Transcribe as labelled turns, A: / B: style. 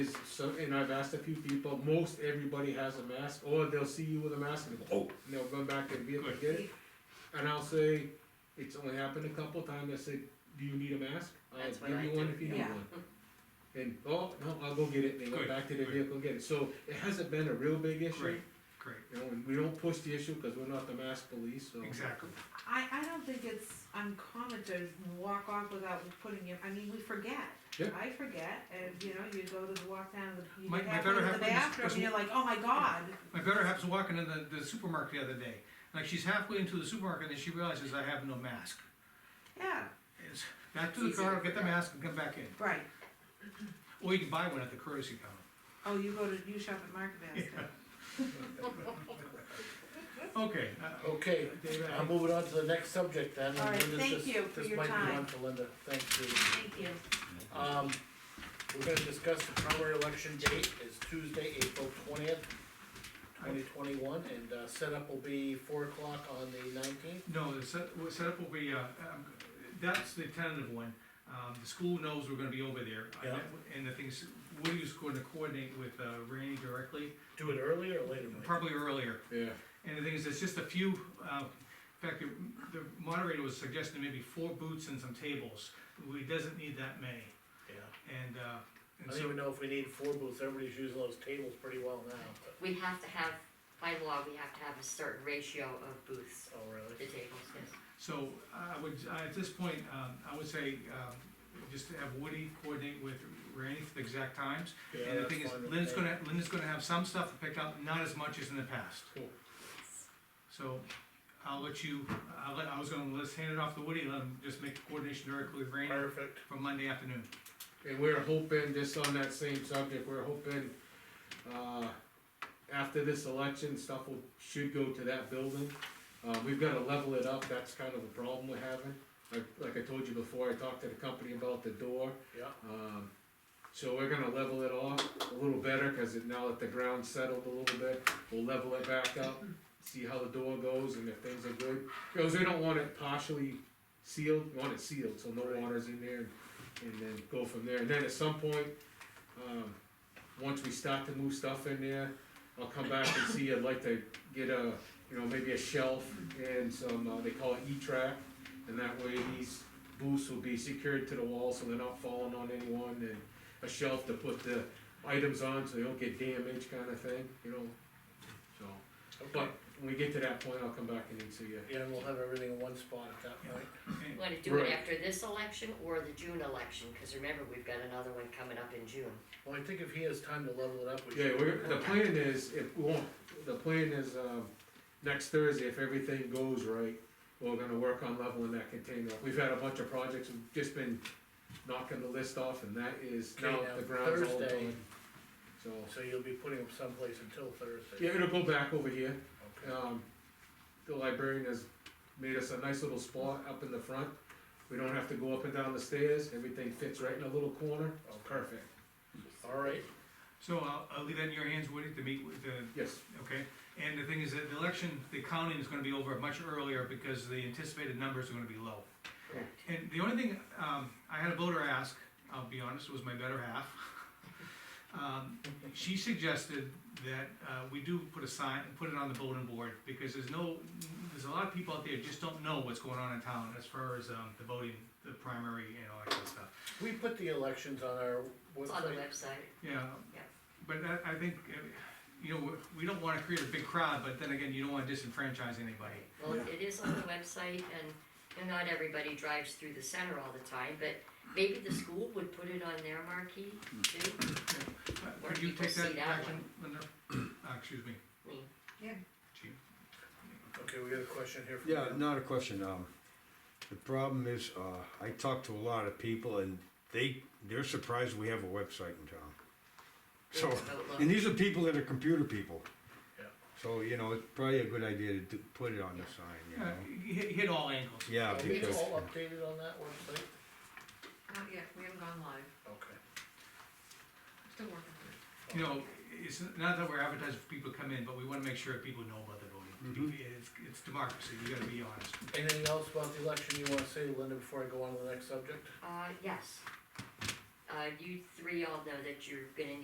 A: Is- So, and I've asked a few people, most everybody has a mask, or they'll see you with a mask and they'll,
B: Oh.
A: and they'll run back to the vehicle and get it. And I'll say, it's only happened a couple times, I said, do you need a mask? I'll
C: That's what
A: give
C: I
A: you one
C: do,
A: if you need
C: yeah.
A: one. And, oh, no, I'll go get it, and they went
D: Good,
A: back to their
D: good.
A: vehicle and get it, so it hasn't been a real big issue.
D: Great, great,
A: You know, and we don't push the issue, cause we're not the mask police, so.
D: exactly.
C: I, I don't think it's uncommon to walk off without putting it, I mean, we forget.
A: Yeah.
C: I forget, and you know, you go to walk down, the-
D: My-
C: you
D: my
C: have
D: better
C: to
D: half
C: the
D: was-
C: bathroom,
D: was-
C: and you're like, oh my god.
D: My better half was walking in the, the supermarket the other day, like she's halfway into the supermarket and she realizes I have no mask.
C: Yeah,
D: It's back to the
C: It's easy to
D: car, get the
C: forget.
D: mask and come back in,
C: right,
D: or you can buy one at the courtesy counter.
C: oh, you go to, you shop at Market Basket.
D: Okay, uh,
E: Okay, I'm moving on to the next subject then. and
C: All right,
E: Linda's
C: thank
E: just-
C: you for your
E: This might be
C: time.
E: one for Linda, thank you.
C: Thank you.
E: Um, we're gonna discuss the primary election date is Tuesday, April twentieth, twenty twenty-one, and, uh, setup will be four o'clock on the nineteenth.
D: no, the set, well, setup will be, uh, um, that's the tentative one. Um, the school knows we're gonna be over there. I
E: Yeah.
D: met with- And the things, Woody's going to coordinate with, uh, Randy directly,
E: Do it earlier or later, Mike?
D: probably earlier.
A: Yeah,
D: And the thing is, it's just a few, uh, in fact, the- the moderator was suggesting maybe four booths and some tables. We doesn't need that many,
E: Yeah,
D: and, uh,
E: I
D: and
E: don't
D: so,
E: even know if we need four booths, everybody's using those tables pretty well now, but,
F: We have to have, by law, we have to have a certain ratio of booths
E: oh,
F: at
E: really?
F: the tables, yes.
D: so I would, I- at this point, um, I would say, um, just to have Woody coordinate with Randy for the exact times.
E: Yeah,
D: And the
E: that's
D: thing is,
E: fine with
D: Lynn's
E: me.
D: gonna, Lynn's gonna have some stuff picked up, not as much as in the past.
A: Cool.
D: So, I'll let you, I'll let, I was gonna, let's hand it off to Woody, let him just make the coordination directly with Randy
E: Perfect,
D: for Monday afternoon.
A: And we're hoping, just on that same subject, we're hoping, uh, after this election, stuff will, should go to that building. Uh, we've gotta level it up, that's kind of the problem we're having. Like, like I told you before, I talked to the company about the door,
E: yeah,
A: um, so we're gonna level it off a little better, cause it- now that the ground's settled a little bit, we'll level it back up, see how the door goes and if things are good. Cause we don't want it partially sealed, we want it sealed, so no
E: Right.
A: water's in there, and then go from there. And then at some point, um, once we start to move stuff in there, I'll come back and see, I'd like to get a, you know, maybe a shelf and some, uh, they call it E-track. And that way these booths will be secured to the wall so they're not falling on anyone and a shelf to put the items on so they don't get damaged kind of thing, you know? So,
E: okay,
A: but when we get to that point, I'll come back and see you.
E: yeah, and we'll have everything in one spot at that point.
D: Okay.
F: You wanna do it
A: Right.
F: after this election or the June election, cause remember, we've got another one coming up in June.
E: Well, I think if he has time to level it up, we
A: Yeah,
E: should.
A: we're, the plan is, if, we won't- the plan is, um, next Thursday, if everything goes right, we're gonna work on leveling that container. We've had a bunch of projects, we've just been knocking the list off, and that is
E: Okay,
A: now
E: now
A: the ground's all
E: Thursday-
A: done. So,
E: So you'll be putting them someplace until Thursday?
A: yeah, it'll go back over here,
E: Okay,
A: um, the librarian has made us a nice little spot up in the front. We don't have to go up and down the stairs, everything fits right in a little corner,
E: Okay.
A: perfect,
E: all right,
D: So I'll, I'll leave that in your hands, Woody, to meet with the,
A: yes,
D: Okay, and the thing is that the election, the counting is gonna be over much earlier because the anticipated numbers are gonna be low.
A: Correct.
D: And the only thing, um, I had a voter ask, I'll be honest, was my better half. Um, she suggested that, uh, we do put a sign, put it on the bulletin board, because there's no, there's a lot of people out there just don't know what's going on in town as far as, um, the voting, the primary and all that kind of stuff.
E: we put the elections on our
F: It's on the
E: website,
F: website.
D: Yeah,
F: Yeah.
D: but I, I think, uh, you know, we- we don't wanna create a big crowd, but then again, you don't wanna disenfranchise anybody.
F: Well,
A: Yeah.
F: it is on the website and, you know, not everybody drives through the center all the time, but maybe the school would put it on their marquee too.
D: Uh,
F: Where
D: Would you
F: people
D: take
F: see
D: that
F: that
D: action, Linda? Uh, excuse me,
A: Hmm.
F: Me.
D: chief.
E: okay, we got a question here from.
G: Yeah,
E: Jim.
G: not a question, um, the problem is, uh, I talk to a lot of people and they, they're surprised we have a website in town.
F: It's
G: So,
F: about love.
G: and these are people that are computer people.
E: Yeah.
G: So, you know, it's probably a good idea to do, put it on the sign, you
D: Uh,
G: know?
D: hit, hit all angles.
G: Yeah,
E: Are we
G: because,
E: all updated on that website?
C: Not yet, we haven't gone live,
E: Okay.
C: still working through
D: You
C: it.
D: know, it's not that we're advertising for people to come in, but we wanna make sure people know about the voting. It's, it's democracy, you gotta be honest.
E: Anything else about the election you wanna say, Linda, before I go on to the next subject?
F: Uh, yes. Uh, you three all know that you're gonna